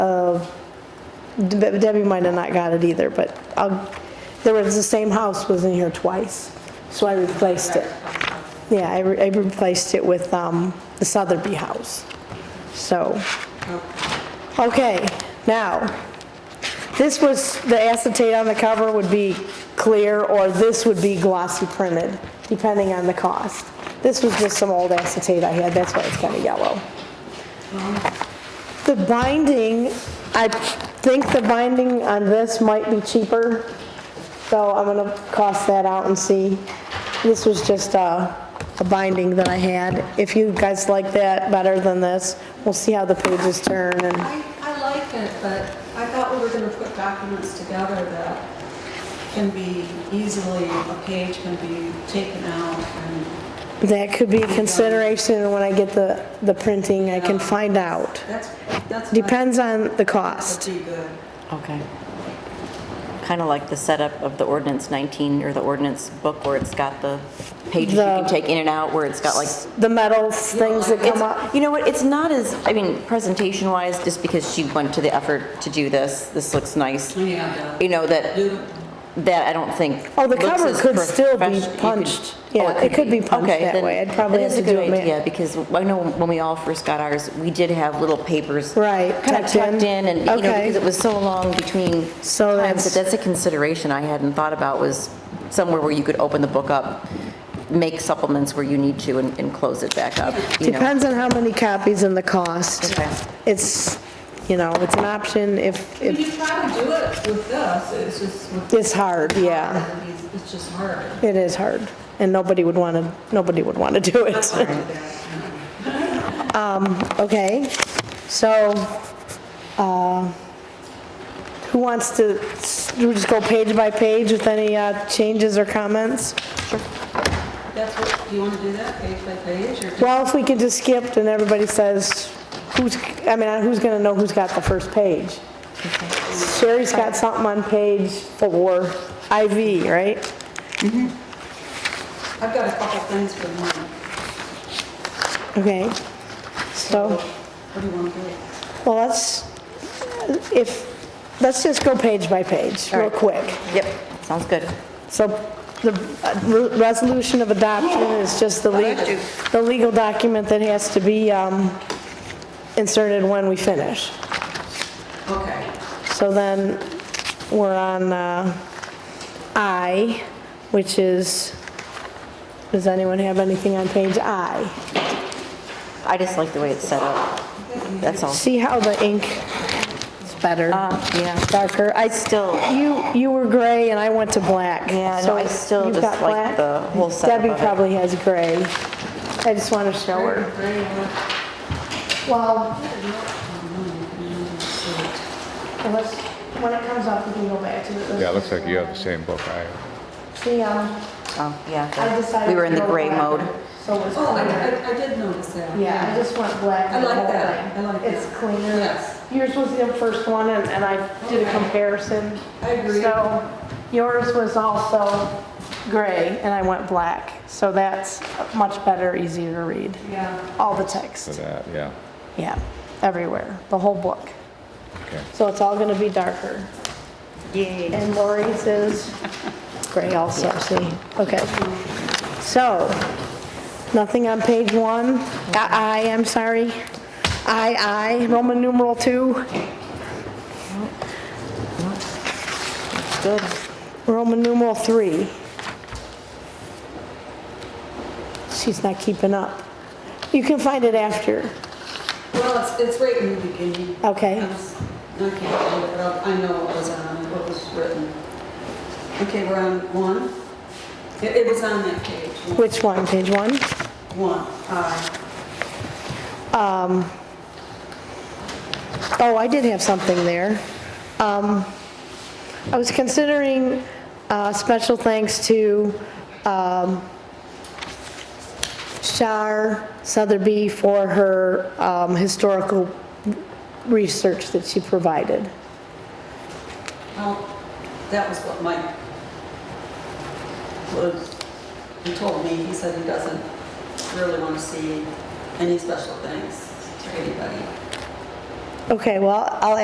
Deb- Debbie might have not got it either, but I'll, there was, the same house was in here twice, so I replaced it. Yeah, I re- I replaced it with um, the Sotheby house, so. Okay, now, this was, the acetate on the cover would be clear, or this would be glossy printed, depending on the cost. This was just some old acetate I had, that's why it's kind of yellow. The binding, I think the binding on this might be cheaper, so I'm gonna cost that out and see. This was just a, a binding that I had. If you guys like that better than this, we'll see how the pages turn and, I, I like it, but I thought we were gonna put documents together that can be easily, a page can be taken out and, that could be a consideration and when I get the, the printing, I can find out. that's, that's. my- Depends on the That cost. would be good. Okay. Kind of like the setup of the ordinance 19 or the ordinance book where it's got the pages you can The- take in and out, where it's got like, The metal things that come up. It's- you know what, it's not as, I mean, presentation-wise, just because she went to the effort to do this, this looks nice. Yeah. You know, that, Do- that I don't think. Oh, the looks cover as could still be profesh- you could- punched. oh, Yeah, it could be punched Okay, that then way. I'd probably that is have a to do good it man- idea, Because I know when we all first got ours, we did have little papers. Right, Kind of tucked in. tucked in and, you know, Okay. because it was so long between So that's- times. That that's a consideration I hadn't thought about was somewhere where you could open the book up, make supplements where you need to and, and close it back up, you know? Depends on how many copies and the cost. Okay. It's, you know, it's an option if, I mean, if, You try to do it with this, it's just. with- It's hard, yeah. It's- It's just hard. it is hard, and nobody would want to, nobody would want to do it. Um, Okay, so, uh, who wants to, we just go page by page with any uh, changes or comments? That's what, do you wanna do that page by page or? Well, if we can just skip and everybody says, who's, I mean, uh, who's going to know who's got the first page? Sherry's got something on page four, IV, right? I've got a couple things for mine. Okay, so, What do you wanna do? well, let's, if, let's just go page by page, real right. quick. Yep, sounds good. So the uh, re- resolution of adoption is just the legal, the legal document that has to be um, inserted when we finish. Okay. So then, we're on uh, I, which is, does anyone have anything on page I? I just like the way it's set up, that's all. See how the ink is better, Uh, yeah. darker? I Still- You, you were gray and I went to black. Yeah, no, so I still you've just got black. like the whole setup of Debbie it. probably has gray. I just want to show her. Very well. Well, unless, when it comes up, we can go back to it. Yeah, it looks like you have the same book I have. See, um, Oh, I yeah. decided. We were in to the go gray black, mode. So it's Oh, I, cleaner. I, I did notice that. Yeah, I just went black. I the like whole that. thing. I like It's that. cleaner. Yes. Yours was the first one and, and I did a Okay. comparison. I agree. So yours was also gray and I went black. So that's much better, easier to read. Yeah. All the for text, that, yeah. yeah, everywhere, the whole book. Okay. So it's all gonna be darker. Yay. And Lori's is gray also, see? Okay. So, nothing on page one? I, I, I'm sorry. I, I, Roman numeral two, Good. Roman numeral three. She's not keeping up. You can find it after. Well, it's, it's right in the beginning. Okay. I was- I can't find it, but I'll- I know what was on, it, what was written. Okay, we're on one. It, it was on that page. one- Which one, page one? One, aye. Oh, I did have something there. Um, I was considering uh, special thanks to um, Shar Sotheby for her um, historical research that she provided. Well, that was what Mike was, he told me, he said he doesn't really want to see any special thanks to anybody. Okay, well, I'll